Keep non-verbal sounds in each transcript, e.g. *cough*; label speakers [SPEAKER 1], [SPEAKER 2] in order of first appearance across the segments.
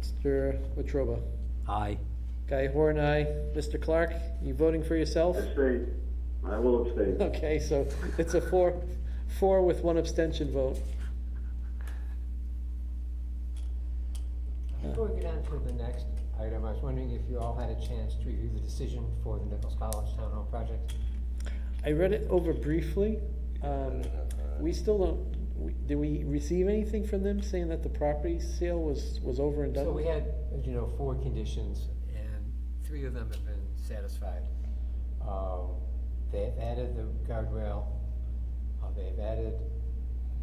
[SPEAKER 1] Mr. Wetruba.
[SPEAKER 2] Aye.
[SPEAKER 1] Guy Horn, aye. Mr. Clark, you voting for
[SPEAKER 3] *laughs*
[SPEAKER 1] yourself?
[SPEAKER 4] Abstain. I will abstain.
[SPEAKER 1] Okay, so it's a four, four with one abstention vote.
[SPEAKER 3] Before we get on to the next item, I was wondering if you all had a chance to review the decision for the Nichols College Town Hall project?
[SPEAKER 1] I read it over briefly. Um, We still don't, we- did we receive anything from them saying that the property sale was, was over and done?
[SPEAKER 3] So we had, as you know, four conditions, and three of them have been satisfied. Um, They've added the guardrail, uh, they've added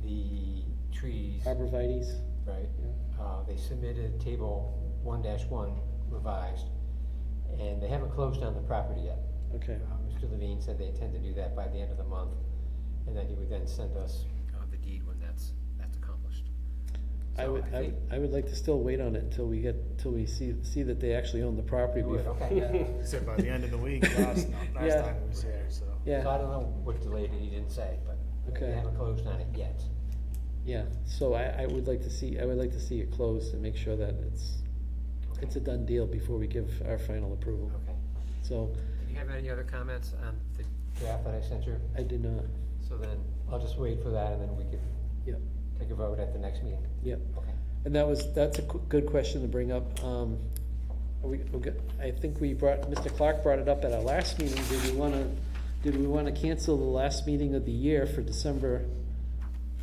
[SPEAKER 3] the trees,
[SPEAKER 1] Arborvitae's?
[SPEAKER 3] right?
[SPEAKER 1] Yeah.
[SPEAKER 3] Uh, They submitted table one dash one revised, and they haven't closed on the property yet.
[SPEAKER 1] Okay,
[SPEAKER 3] Uh, Mr. Levine said they intend to do that by the end of the month, and then he would then send us uh, the deed when that's, that's accomplished.
[SPEAKER 1] I
[SPEAKER 3] So
[SPEAKER 1] would, I would,
[SPEAKER 3] think-
[SPEAKER 1] I would like to still wait on it until we get, till we see, see that they actually own the property
[SPEAKER 3] You would,
[SPEAKER 1] before.
[SPEAKER 3] okay,
[SPEAKER 1] *laughs*
[SPEAKER 3] yeah.
[SPEAKER 5] He said by the end of the week, last, last
[SPEAKER 1] Yeah.
[SPEAKER 5] time he was here, so.
[SPEAKER 3] So I
[SPEAKER 1] Yeah,
[SPEAKER 3] don't know what delayed it, he didn't say, but
[SPEAKER 1] Okay.
[SPEAKER 3] they haven't closed on it yet.
[SPEAKER 1] yeah, so I, I would like to see, I would like to see it closed and make sure that it's, it's a done deal before we give our final approval.
[SPEAKER 3] Okay.
[SPEAKER 1] So,
[SPEAKER 3] Do you have any other comments on the draft that I sent you?
[SPEAKER 1] I did not,
[SPEAKER 3] So then, I'll just wait for that, and then we could
[SPEAKER 1] yep,
[SPEAKER 3] take a vote at the next meeting.
[SPEAKER 1] yep.
[SPEAKER 3] Okay.
[SPEAKER 1] And that was, that's a qu- good question to bring up. Um, are we, we got- I think we brought, Mr. Clark brought it up at our last meeting. Did we wanna, did we wanna cancel the last meeting of the year for December?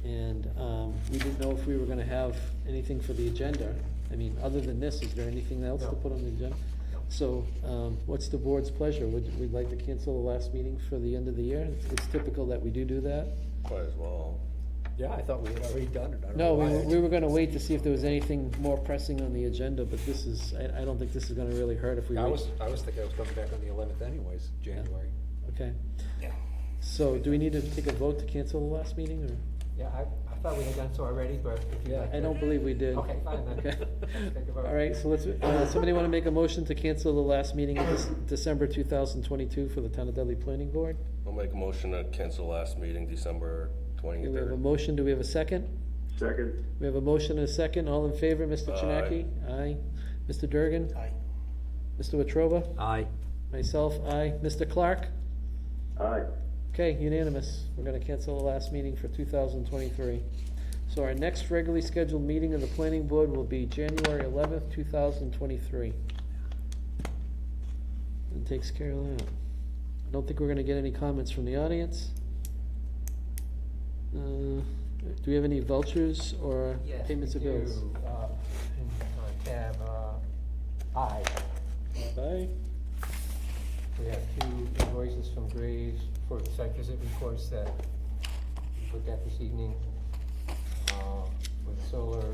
[SPEAKER 1] And, um, we didn't know if we were gonna have anything for the agenda. I mean, other than this, is there anything else to
[SPEAKER 3] No.
[SPEAKER 1] put on the agenda? So, um, what's the board's pleasure? Would, we'd like to cancel the last meeting for the end of the year? It's- It's typical that we do do that.
[SPEAKER 6] Quite as well.
[SPEAKER 2] Yeah, I thought we had already done it. I don't
[SPEAKER 1] No,
[SPEAKER 2] know
[SPEAKER 1] we,
[SPEAKER 2] why
[SPEAKER 1] were-
[SPEAKER 2] I-
[SPEAKER 1] we were gonna wait to see if there was anything more pressing on the agenda, but this is, I, I don't think this is gonna really hurt if we
[SPEAKER 2] I
[SPEAKER 1] wait.
[SPEAKER 2] was, I was thinking I was coming back on the eleventh anyways, January.
[SPEAKER 1] Okay,
[SPEAKER 5] Yeah.
[SPEAKER 1] so do we need to take a vote to cancel the last meeting, or?
[SPEAKER 3] Yeah, I, I thought we had done so already, but if you'd like
[SPEAKER 1] I
[SPEAKER 3] to-
[SPEAKER 1] don't believe we did.
[SPEAKER 3] Okay, fine then.
[SPEAKER 1] Okay.
[SPEAKER 3] Let's take a vote.
[SPEAKER 1] All right, so let's, uh, somebody wanna make a motion to cancel the last meeting of this, December two thousand twenty-two for the Town of Dudley Planning Board?
[SPEAKER 6] I'll make a motion to cancel last meeting, December
[SPEAKER 1] Okay, We have a
[SPEAKER 6] twenty-third.
[SPEAKER 1] motion, do we have a second?
[SPEAKER 4] Second.
[SPEAKER 1] We have a motion and a second, all in favor, Mr.
[SPEAKER 6] Aye.
[SPEAKER 1] Chinaki? Aye. Mr. Durgan?
[SPEAKER 5] Aye.
[SPEAKER 1] Mr. Wetrova?
[SPEAKER 2] Aye.
[SPEAKER 1] Myself, aye. Mr. Clark?
[SPEAKER 4] Aye.
[SPEAKER 1] Okay, unanimous. We're gonna cancel the last meeting for two thousand twenty-three. So our next regularly scheduled meeting of the planning board will be January eleventh, two thousand twenty-three. And takes care of that. I don't think we're gonna get any comments from the audience. Uh, do we have any vouchers or
[SPEAKER 3] Yes,
[SPEAKER 1] payments
[SPEAKER 3] we
[SPEAKER 1] of bills?
[SPEAKER 3] do, uh, in, uh, Tab, uh, I,
[SPEAKER 1] Bye.
[SPEAKER 3] We have two invoices from Graves for the site visit reports that we looked at this evening, uh, for the solar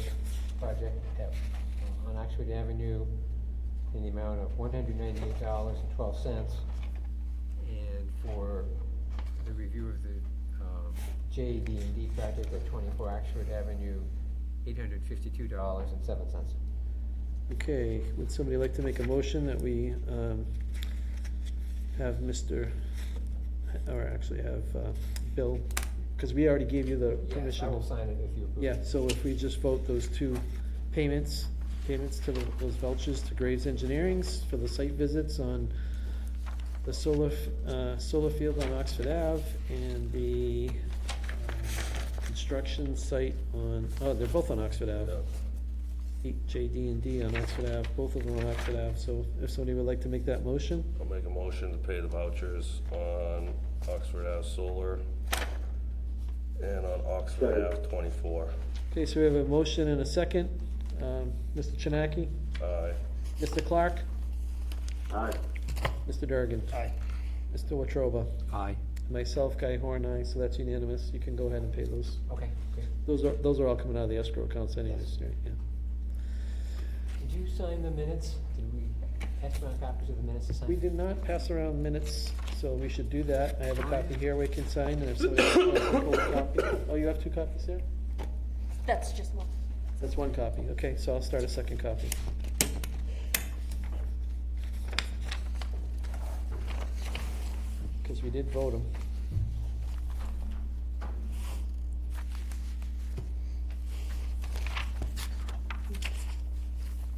[SPEAKER 3] project at, uh, on Oxford Avenue in the amount of one hundred ninety-eight dollars and twelve cents. And for the review of the, um, J D and D project at twenty-four Oxford Avenue, eight hundred fifty-two dollars and seven cents.
[SPEAKER 1] Okay, would somebody like to make a motion that we, um, have Mr., or actually have, uh, Bill, because we already gave you the
[SPEAKER 3] Yes, I
[SPEAKER 1] permission.
[SPEAKER 3] will sign it if you approve.
[SPEAKER 1] Yeah, so if we just vote those two payments, payments to the- those vouchers to Graves Engineering's for the site visits on the solar, f- uh, solar field on Oxford Ave and the, um, construction site on, oh, they're both on Oxford Ave. J D and D on Oxford Ave, both of them on Oxford Ave, so if somebody would like to make that motion,
[SPEAKER 6] I'll make a motion to pay the vouchers on Oxford Ave Solar and on Oxford
[SPEAKER 4] Second.
[SPEAKER 6] Ave twenty-four.
[SPEAKER 1] okay, so we have a motion and a second, um, Mr. Chinaki,
[SPEAKER 6] Aye.
[SPEAKER 1] Mr. Clark,
[SPEAKER 4] Aye.
[SPEAKER 1] Mr. Durgan,
[SPEAKER 5] Aye.
[SPEAKER 1] Mr. Watroba,
[SPEAKER 2] Aye.
[SPEAKER 1] myself, Guy Horn, aye, so that's unanimous, you can go ahead and pay those,
[SPEAKER 3] Okay, great.
[SPEAKER 1] those are, those are all coming out of the escrow accounts anyways,
[SPEAKER 3] Yes.
[SPEAKER 1] right, yeah.
[SPEAKER 3] Did you sign the minutes? Did we pass around copies of the minutes to sign?
[SPEAKER 1] We did not pass around minutes, so we should do that, I have a copy here we can sign, and if somebody wants a full copy, oh, you have two copies there?
[SPEAKER 7] That's just one.
[SPEAKER 1] That's one copy, okay, so I'll start a second copy. Because we did vote them.